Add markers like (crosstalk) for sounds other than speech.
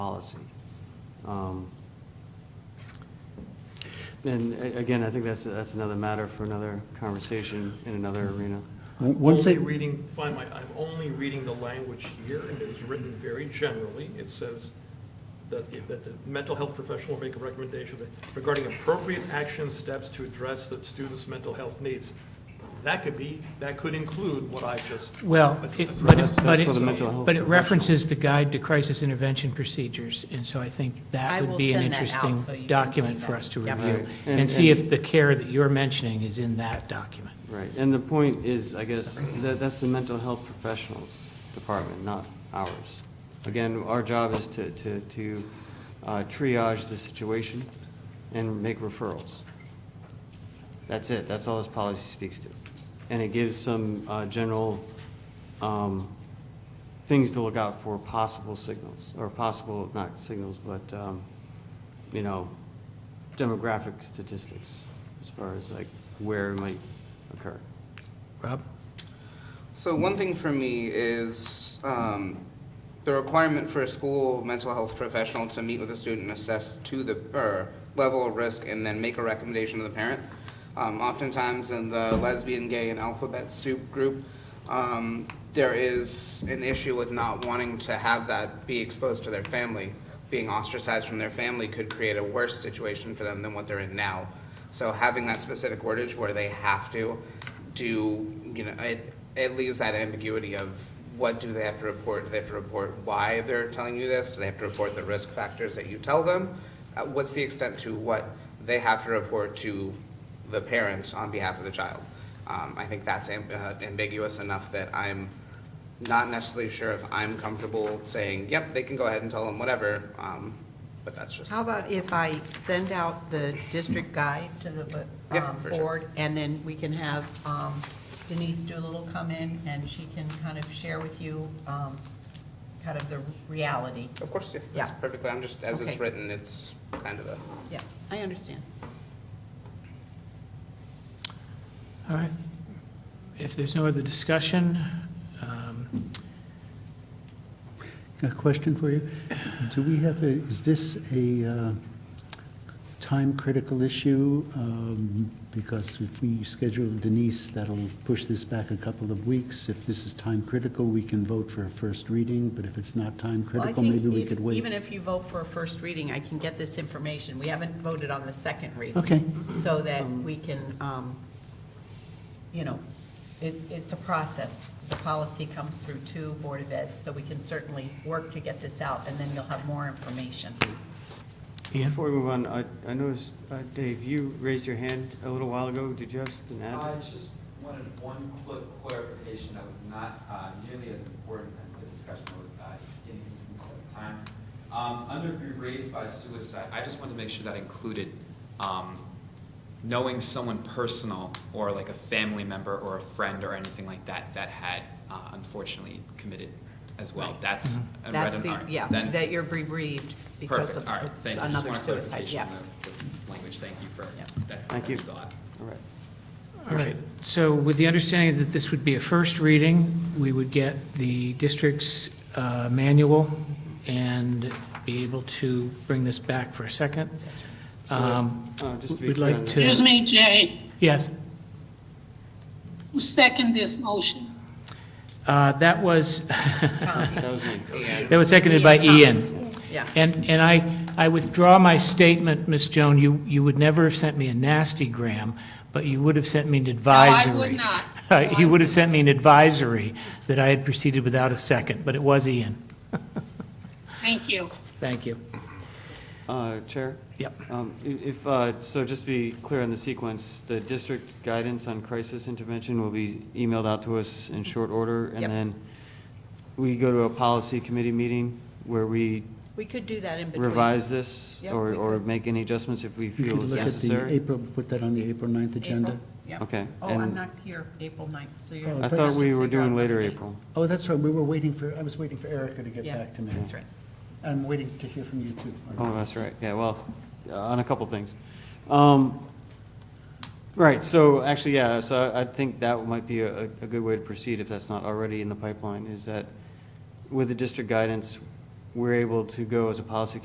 policy. Um, And a- again, I think that's, that's another matter for another conversation in another arena. W- I'm Once only it, reading, find my, I'm only reading the language here, and it is written very generally. It says that, the- that the mental health professional will make a recommendation that- regarding appropriate action steps to address the student's mental health needs. That could be, that could include what I just. Well, it- but it, That's but for the mental it, health but it references the Guide to Crisis Intervention Procedures, and so I think I that would will be an send that out interesting so you can document see for that. us to Yep. review, Right. And- and see and- if the care that you're mentioning is in that document. Right, and the point is, I guess, that, that's the mental health professionals department, not ours. Again, our job is to, to, to uh, triage the situation and make referrals. That's it, that's all this policy speaks to. And it gives some uh, general um, things to look out for, possible signals, or possible, not signals, but, um, you know, demographic statistics as far as like where it might occur. Rob? So one thing for me is um, the requirement for a school mental health professional to meet with a student and assess to the or level of risk and then make a recommendation to the parent. Um, oftentimes in the lesbian, gay, and alphabet soup group, um, there is an issue with not wanting to have that be exposed to their family. Being ostracized from their family could create a worse situation for them than what they're in now. So having that specific wordage where they have to do, you know, it, it leaves that ambiguity of what do they have to report? Do they have to report why they're telling you this? Do they have to report the risk factors that you tell them? Uh, What's the extent to what they have to report to the parent on behalf of the child? Um, I think that's am- uh, ambiguous enough that I'm not necessarily sure if I'm comfortable saying, yep, they can go ahead and tell them whatever, um, but that's just. How about if I send out the district guide to the Yeah, um, for sure. board, and then we can have um, Denise Doolittle come in, and she can kind of share with you um, kind of the reality. Of course, yeah, that's Yeah. perfectly, I'm just, as it's Okay. written, it's kind of a. Yeah, I understand. All right. If there's no other discussion, um, a question for you. Do we have a, is this a uh, time-critical issue? Um, Because if we schedule Denise, that'll push this back a couple of weeks. If this is time-critical, we can vote for a first reading, but if it's not Well, I time-critical, think maybe we if- could wait. Even if you vote for a first reading, I can get this information. We haven't voted on the second reading. Okay. So that we can, um, you know, it, it's a process. The policy comes through two Board of Eds, so we can certainly work to get this out, and then you'll have more information. Ian? Before we move on, I, I noticed, uh, Dave, you raised your hand a little while ago. Did you have something to I add? just wanted one quick clarification that was not uh, nearly as important as the discussion that was uh, in existence at the time. Um, Under bereaved by suicide, I just wanted to make sure that included um, knowing someone personal or like a family member or a friend or anything like that that had uh, unfortunately committed as well. That's, Mm-hmm. I read That's an the, art- yeah, then- that you're bereaved because of Perfect, all right, thank you. Just another want a suicide, clarification yeah. on the the language, thank you for, Yeah. Thank that that you. means a lot. All right. All right, so with the understanding that this would be a first reading, we would get the district's uh, manual and be able to bring this back for a second. Um, Uh, Just to be We'd clear like on to- that. Excuse me, Jay, Yes, who seconded this motion? uh, that was, That was me. that was seconded by Ian. Yeah. And, and I, I withdraw my statement, Ms. Joan, you, you would never have sent me a nasty gram, but you would have sent me an advisory. would (laughs) not. You would have sent me an advisory that I had proceeded without a second, but it was Ian. Thank you. Thank you. Uh, Chair? Yep. Um, i- If, uh, so just to be clear on the sequence, the district guidance on crisis intervention will be emailed out to us in short order, and Yep. then we go to a policy committee meeting where we We could do that in between. revise this Yep, or, we or could. make any adjustments if we You could feel is look at the necessary. April, put that on the April 9th agenda. April, yeah. Okay, Oh, and- I'm not here April 9th, so you're. Oh, I thought we were Figure out doing what later to do. April. Oh, that's right, we were waiting for, I was waiting for Erica to get Yeah, back to me. That's right. I'm waiting to hear from you, too. Oh, that's right, yeah, well, on a couple things. Um, Right, so actually, yeah, so I I think that might be a, a good way to proceed if that's not already in the pipeline, is that with the district guidance, we're able to go as a policy